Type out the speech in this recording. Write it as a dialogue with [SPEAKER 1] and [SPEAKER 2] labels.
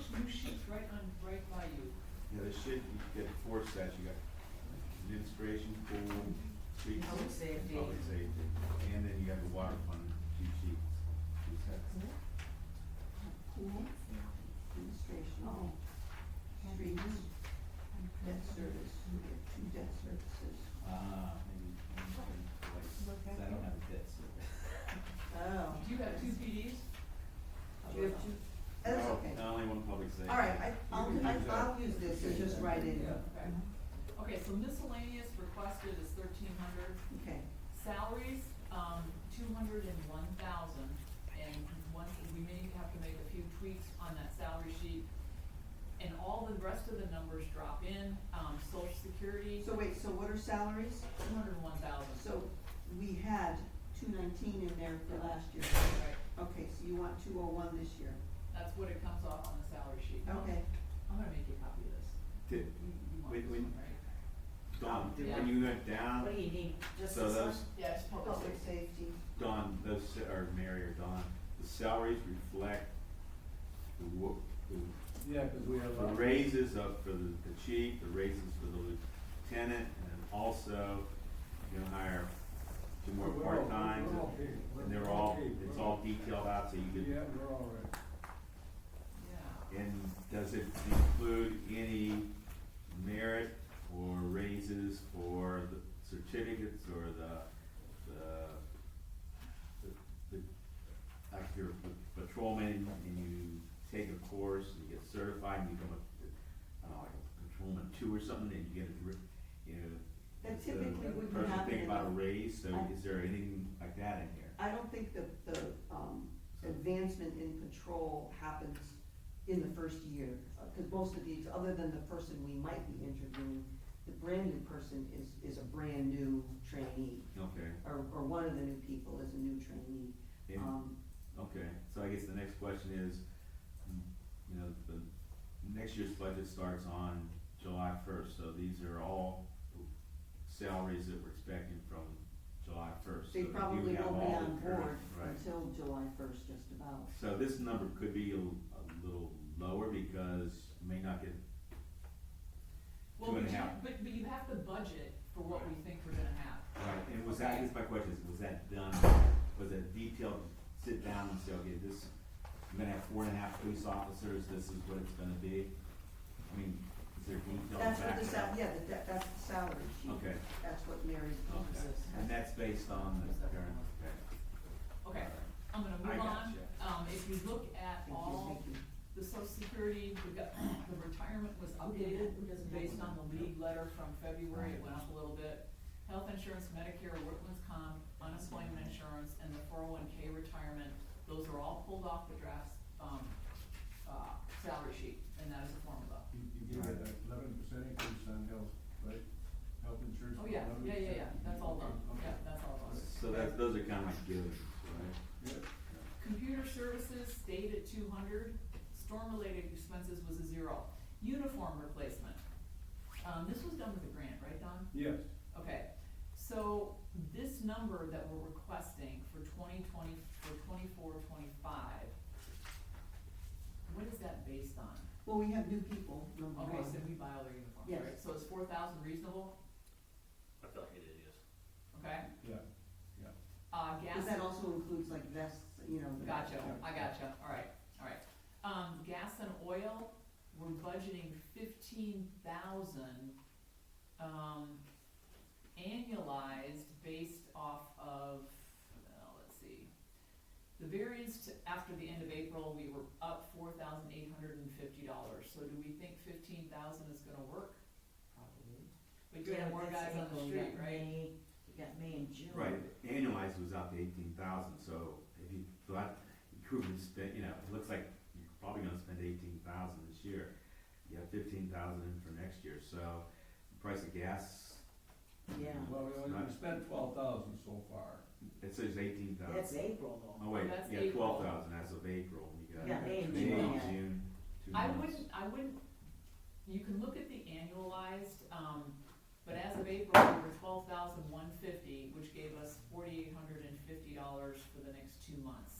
[SPEAKER 1] It's right on, right by you.
[SPEAKER 2] Yeah, there should, you get four sets, you got administration, pool, street.
[SPEAKER 1] Public safety.
[SPEAKER 2] Public safety, and then you have the water fund, two sheets, two sets.
[SPEAKER 3] Pool, administration, oh, streets, debt service, we have two debt services.
[SPEAKER 4] Ah, maybe, maybe we can collect, 'cause I don't have a debt service.
[SPEAKER 3] Oh.
[SPEAKER 1] Do you have two PDs?
[SPEAKER 3] Do you have two? That's
[SPEAKER 2] No,
[SPEAKER 3] okay.
[SPEAKER 2] no, only one public safety.
[SPEAKER 3] All right, I, I'll,
[SPEAKER 2] You can
[SPEAKER 3] I-
[SPEAKER 2] use that.
[SPEAKER 3] I'll use this and just write it in.
[SPEAKER 1] Okay. Okay, so miscellaneous requested is thirteen hundred.
[SPEAKER 3] Okay,
[SPEAKER 1] Salaries, um, two hundred and one thousand, and one, we may have to make a few tweaks on that salary sheet. And all the rest of the numbers drop in, um, social security,
[SPEAKER 3] so wait, so what are salaries?
[SPEAKER 1] two hundred and one thousand.
[SPEAKER 3] So we had two nineteen in there for last year.
[SPEAKER 1] Right,
[SPEAKER 3] Okay, so you want two oh one this year.
[SPEAKER 1] that's what it comes off on the salary sheet.
[SPEAKER 3] Okay.
[SPEAKER 1] I'm gonna make you a copy of this.
[SPEAKER 2] Did,
[SPEAKER 1] You- you want
[SPEAKER 2] when,
[SPEAKER 1] this
[SPEAKER 2] when,
[SPEAKER 1] one, right?
[SPEAKER 2] Dawn, did- when
[SPEAKER 1] Yeah.
[SPEAKER 2] you went down,
[SPEAKER 5] What do you need, just
[SPEAKER 2] so
[SPEAKER 5] this one?
[SPEAKER 2] those,
[SPEAKER 1] Yeah, it's public
[SPEAKER 3] Public
[SPEAKER 1] safety.
[SPEAKER 3] safety.
[SPEAKER 2] Dawn, those, sa- or Mary or Dawn, the salaries reflect the wo- the
[SPEAKER 4] Yeah, because we have.
[SPEAKER 2] The raises up for the, the chief, the raises for the lieutenant, and then also, you know, hire two more part-times.
[SPEAKER 4] We're all paid.
[SPEAKER 2] And they're all, it's all detailed out, so you
[SPEAKER 4] Yeah,
[SPEAKER 2] can,
[SPEAKER 4] we're all right.
[SPEAKER 1] Yeah.
[SPEAKER 2] and does it include any merit or raises for the certificates or the, the, the, the- like you're a patrolman and you take a course and you get certified and you become a, I don't know, like a patrolman two or something, and you get a, dri- you know.
[SPEAKER 3] That
[SPEAKER 2] does the
[SPEAKER 3] typically wouldn't
[SPEAKER 2] Person
[SPEAKER 3] happen
[SPEAKER 2] think
[SPEAKER 3] in
[SPEAKER 2] about
[SPEAKER 3] a-
[SPEAKER 2] a raise, so
[SPEAKER 3] I-
[SPEAKER 2] is there anything like that in here?
[SPEAKER 3] I don't think the, the, um, advancement in patrol happens in the first year. Because most of these, other than the person we might be interviewing, the brand new person is, is a brand new trainee.
[SPEAKER 2] Okay,
[SPEAKER 3] Or, or one of the new people is a new trainee.
[SPEAKER 2] and-
[SPEAKER 3] Um,
[SPEAKER 2] Okay, so I guess the next question is, mm, you know, the next year's budget starts on July first, so these are all salaries that we're expecting from July first.
[SPEAKER 3] they probably won't be on board until July first, just about.
[SPEAKER 2] So this number could be a, a little lower because you may not get,
[SPEAKER 1] Well,
[SPEAKER 2] Two and
[SPEAKER 1] but
[SPEAKER 2] a
[SPEAKER 1] you,
[SPEAKER 2] half.
[SPEAKER 1] but, but you have to budget for what we think we're gonna have.
[SPEAKER 2] right, and was that, I guess my question is, was that done, was that detailed, sit down and say, okay, this, we're gonna have four and a half police officers, this is what it's gonna be? I mean, is there detail back?
[SPEAKER 3] That's what the sal, yeah, the- that, that's the salary sheet.
[SPEAKER 2] Okay.
[SPEAKER 3] That's what Mary.
[SPEAKER 2] Okay, and that's based on the current, okay.
[SPEAKER 1] Okay, I'm gonna
[SPEAKER 2] I
[SPEAKER 1] move on.
[SPEAKER 2] gotcha.
[SPEAKER 1] Um, if you look at
[SPEAKER 3] Thank you,
[SPEAKER 1] all
[SPEAKER 3] thank you.
[SPEAKER 1] the social security, we got, the retirement was updated based on the lead letter from February, it went up a little bit. Health insurance, Medicare, workman's comp, unemployment insurance, and the four oh one K retirement, those are all pulled off the draft, um, uh, salary sheet, and that is a formula.
[SPEAKER 4] You, you gave it an eleven percent increase on health, right? Health insurance.
[SPEAKER 1] Oh, yeah, yeah, yeah, yeah, that's all done,
[SPEAKER 4] Okay,
[SPEAKER 1] yeah, that's all done.
[SPEAKER 2] So that, those are kind of like givens, right?
[SPEAKER 4] okay,
[SPEAKER 1] Computer services stayed at two hundred, storm-related expenses was a zero. Uniform replacement, um, this was done with a grant, right, Don?
[SPEAKER 4] Yes,
[SPEAKER 1] Okay, so this number that we're requesting for twenty twenty, for twenty-four, twenty-five, what is that based on?
[SPEAKER 3] Well, we have new people, number one.
[SPEAKER 1] Okay, so we buy all their uniforms,
[SPEAKER 3] Yes.
[SPEAKER 1] right? So is four thousand reasonable,
[SPEAKER 6] I feel like it is.
[SPEAKER 1] okay?
[SPEAKER 4] yeah.
[SPEAKER 1] Uh, gas.
[SPEAKER 3] Cause that also includes like vests, you know. the-
[SPEAKER 1] Gotcha, I gotcha, alright, alright. Um, gas and oil, we're budgeting fifteen thousand, um, annualized based off of, well, let's see. The variance to, after the end of April, we were up four thousand eight hundred and fifty dollars, so do we think fifteen thousand is gonna work? Probably. But you're gonna have more guys on the street, right?
[SPEAKER 5] You got May and June.
[SPEAKER 2] Right, annualized was out to eighteen thousand, so if you thought, you could spend, you know, it looks like you're probably gonna spend eighteen thousand this year. You have fifteen thousand in for next year, so the price of gas,
[SPEAKER 5] Yeah,
[SPEAKER 4] Well, we only we spent twelve thousand so far.
[SPEAKER 2] it says eighteen
[SPEAKER 5] that's
[SPEAKER 2] thousand.
[SPEAKER 5] April though.
[SPEAKER 2] Oh wait,
[SPEAKER 1] That's
[SPEAKER 2] yeah,
[SPEAKER 1] April.
[SPEAKER 2] twelve thousand as of April, you got.
[SPEAKER 5] Yeah, May and
[SPEAKER 2] May,
[SPEAKER 5] June.
[SPEAKER 2] June, two
[SPEAKER 1] I
[SPEAKER 2] months.
[SPEAKER 1] wouldn't, I wouldn't, you can look at the annualized, um, but as of April, we were twelve thousand one fifty, which gave us forty-eight hundred and fifty dollars for the next two months.